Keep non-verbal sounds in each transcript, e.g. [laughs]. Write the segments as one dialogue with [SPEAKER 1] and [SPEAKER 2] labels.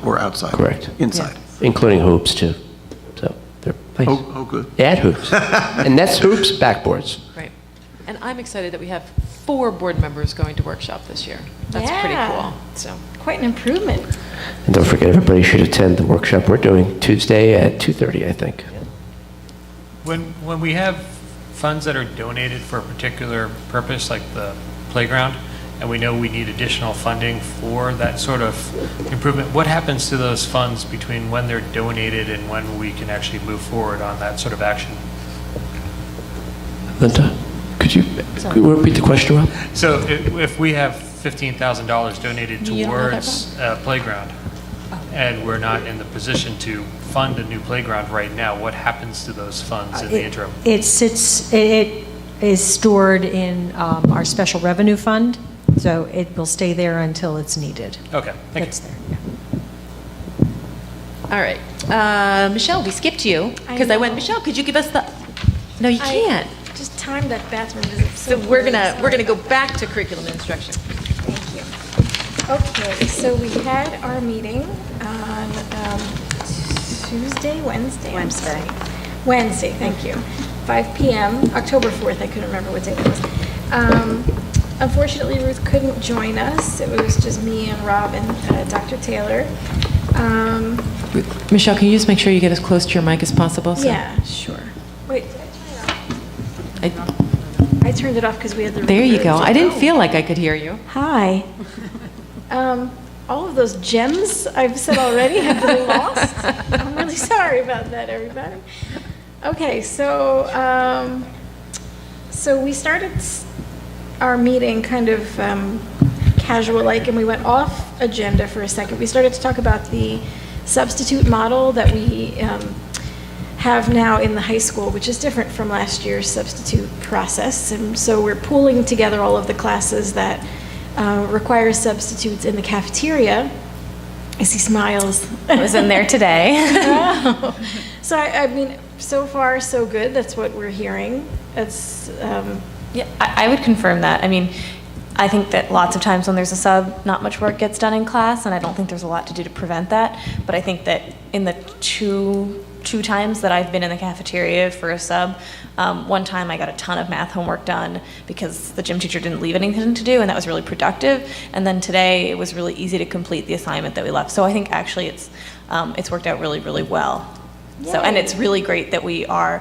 [SPEAKER 1] or outside?
[SPEAKER 2] Correct.
[SPEAKER 1] Inside?
[SPEAKER 2] including hoops too. So they're
[SPEAKER 1] Oh, oh, good. [laughs]
[SPEAKER 2] Add hoops. And that's hoops, backboards.
[SPEAKER 3] Right. And I'm excited that we have four board members going to workshop this year. That's pretty
[SPEAKER 4] Yeah.
[SPEAKER 3] cool, so.
[SPEAKER 4] Quite an improvement.
[SPEAKER 2] And don't forget, everybody should attend the workshop we're doing Tuesday at 2:30, I think.
[SPEAKER 5] When, when we have funds that are donated for a particular purpose, like the playground, and we know we need additional funding for that sort of improvement, what happens to those funds between when they're donated and when we can actually move forward on that sort of action?
[SPEAKER 2] Linda, could you could you repeat the question, Rob?
[SPEAKER 5] So i- if we have $15,000 donated
[SPEAKER 3] You don't know that, Oh.
[SPEAKER 5] towards a playground, and we're not in the position to fund a new playground right now, what happens to those funds
[SPEAKER 4] Uh,
[SPEAKER 5] in the
[SPEAKER 6] It-
[SPEAKER 5] interim?
[SPEAKER 6] It sits, it is stored in um, our special revenue fund, so it will stay there until it's needed.
[SPEAKER 5] Okay, thank you.
[SPEAKER 6] That's there, yeah.
[SPEAKER 3] All right. Uh, Michelle, we skipped you
[SPEAKER 4] I
[SPEAKER 3] because I went,
[SPEAKER 4] know.
[SPEAKER 3] Michelle, could you give us the, no, you
[SPEAKER 4] I
[SPEAKER 3] can't.
[SPEAKER 4] Just timed that bathroom visit so
[SPEAKER 3] So we're
[SPEAKER 4] poorly.
[SPEAKER 3] gonna, we're gonna
[SPEAKER 4] Sorry
[SPEAKER 3] go
[SPEAKER 4] about that.
[SPEAKER 3] back to curriculum and instruction.
[SPEAKER 4] Thank you. Okay, so we had our meeting on um, Tuesday, Wednesday? I'm sorry. Wednesday, thank you. 5 PM, October 4th, I couldn't remember what day it was. Um, Unfortunately, Ruth couldn't join us. It was just me and Rob and uh, Dr. Taylor. Um,
[SPEAKER 3] Michelle, can you just make sure you get as close to your mic as possible? so-
[SPEAKER 4] Yeah, sure. Wait, did I turn it off?
[SPEAKER 3] I-
[SPEAKER 4] I turned it off because we had the.
[SPEAKER 3] There you go. I didn't
[SPEAKER 4] Oh.
[SPEAKER 3] feel like I could hear you.
[SPEAKER 4] Hi. Um, all of those gems I've said already have been lost. I'm really sorry about that, everybody. Okay, so, um, so we started s- our meeting kind of um, casual-like, and we went off agenda for a second. We started to talk about the substitute model that we um, have now in the high school, which is different from last year's substitute process. And so we're pooling together all of the classes that uh, require substitutes in the cafeteria. I see smiles.
[SPEAKER 7] I was in there today.
[SPEAKER 4] [laughs] So I, I mean, so far, so good. That's what we're hearing. That's, um,
[SPEAKER 7] Yeah, I I would confirm that. I mean, I think that lots of times when there's a sub, not much work gets done in class, and I don't think there's a lot to do to prevent that. But I think that in the two, two times that I've been in the cafeteria for a sub, um, one time I got a ton of math homework done because the gym teacher didn't leave anything to do, and that was really productive. And then today, it was really easy to complete the assignment that we left. So I think actually it's, um, it's worked out really, really well. So, and it's really great that we are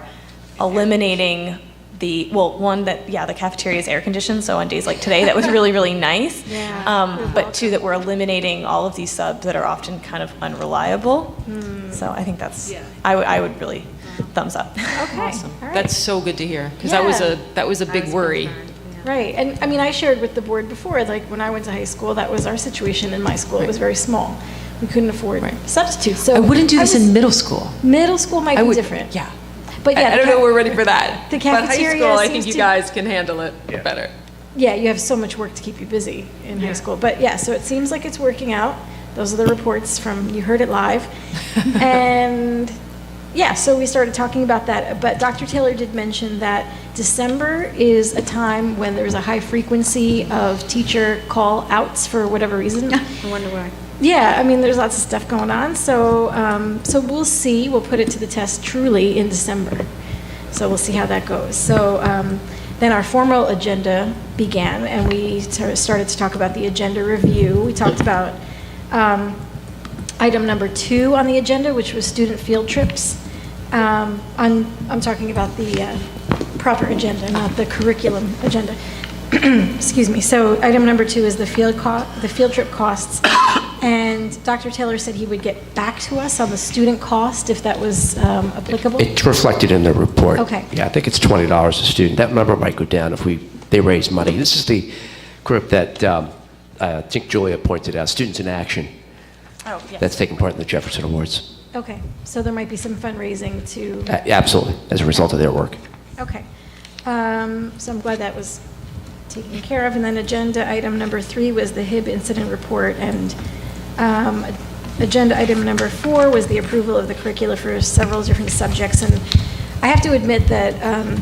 [SPEAKER 7] eliminating the, well, one that, yeah, the cafeteria is air conditioned, so on days like today, that was really, really nice.
[SPEAKER 4] [laughs] Yeah.
[SPEAKER 7] Um, but two, that we're eliminating all of these subs that are often kind of unreliable.
[SPEAKER 4] Hmm.
[SPEAKER 7] So I think that's, I would, I would really thumbs up. [laughs]
[SPEAKER 4] okay. All
[SPEAKER 3] [laughs]
[SPEAKER 4] right.
[SPEAKER 3] That's so good to hear because that was
[SPEAKER 4] Yeah.
[SPEAKER 3] a, that was a big worry.
[SPEAKER 4] Right, and I mean, I shared with the board before, like, when I went to high school, that was our situation in my school, it was very small. We couldn't afford substitutes, so.
[SPEAKER 3] I wouldn't do this
[SPEAKER 4] was-
[SPEAKER 3] in middle school.
[SPEAKER 4] Middle school might
[SPEAKER 3] I
[SPEAKER 4] be
[SPEAKER 3] would-
[SPEAKER 4] different.
[SPEAKER 3] yeah.
[SPEAKER 4] But yeah.
[SPEAKER 3] I I
[SPEAKER 4] the
[SPEAKER 3] don't know
[SPEAKER 4] ca-
[SPEAKER 3] we're ready for that.
[SPEAKER 4] The
[SPEAKER 3] But high
[SPEAKER 4] cafeteria
[SPEAKER 3] school, I
[SPEAKER 4] seems
[SPEAKER 3] think you
[SPEAKER 4] to-
[SPEAKER 3] guys can handle it better.
[SPEAKER 4] Yeah, you have so much work to keep you busy in high school, but yeah, so it seems like it's working out. Those are the reports from, you heard it
[SPEAKER 3] [laughs]
[SPEAKER 4] live. And, yeah, so we started talking about that, but Dr. Taylor did mention that December is a time when there's a high frequency of teacher call-outs for whatever
[SPEAKER 3] [laughs]
[SPEAKER 4] reason.
[SPEAKER 8] I wonder why.
[SPEAKER 4] Yeah, I mean, there's lots of stuff going on, so, um, so we'll see. We'll put it to the test truly in December. So we'll see how that goes. So um, then our formal agenda began, and we sort of started to talk about the agenda review. We talked about um, item number two on the agenda, which was student field trips. Um, I'm, I'm talking about the uh, proper agenda, not the curriculum agenda. [clears throat] Excuse me. So item number two is the field co, the field trip costs. [coughs] And Dr. Taylor said he would get back to us on the student cost if that was um, applicable.
[SPEAKER 2] It's reflected in the report.
[SPEAKER 4] Okay.
[SPEAKER 2] Yeah, I think it's twenty dollars a student. That number might go down if we, they raise money. This is the group that, um, I think Julia pointed out, Students in Action.
[SPEAKER 7] Oh, yes.
[SPEAKER 2] That's taking part in the Jefferson Awards.
[SPEAKER 4] Okay, so there might be some fundraising to,
[SPEAKER 2] A- Absolutely, as a result of their work.
[SPEAKER 4] okay. Um, So I'm glad that was taken care of. And then agenda item number three was the HIB incident report. And um, agenda item number four was the approval of the curricula for several different subjects. And I have to admit that um,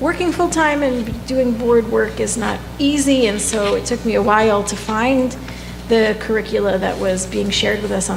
[SPEAKER 4] working full-time and doing board work is not easy. And so it took me a while to find the curricula that was being shared with us on